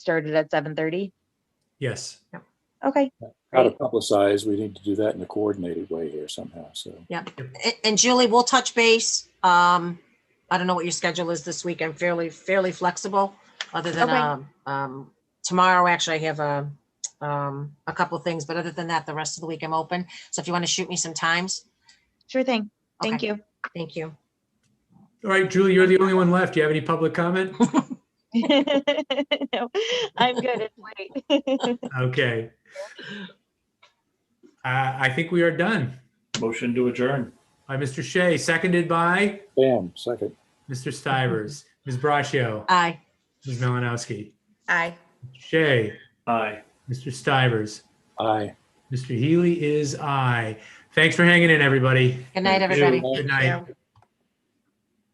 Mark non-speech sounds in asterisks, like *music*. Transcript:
started at 7:30? Yes. Okay. How to Great. publicize, we need to do that in a coordinated way here somehow, so. A- And Julie, we'll touch base. Um, I don't know what your schedule is this week. I'm fairly, fairly flexible, other than, Okay. um, um, tomorrow, actually, I have a, um, a couple of things, but other than that, the rest of the week I'm open. So if you want to shoot me some times, Sure thing. Thank Okay. you. *laughs* thank you. All right, Julie, you're the only one left. Do you have any public comment? No, I'm good. It's late. *laughs* Okay. Uh, I think we are done. Motion to adjourn. By Mr. Shea, seconded by Bam, second. Mr. Stivers, Ms. Braccio, Aye. Ms. Melanowski, Aye. Shea, Aye. Mr. Stivers, Aye. Mr. Healy is I. Thanks for hanging in, everybody. Good night, Thank you. everybody. Good night. Yeah.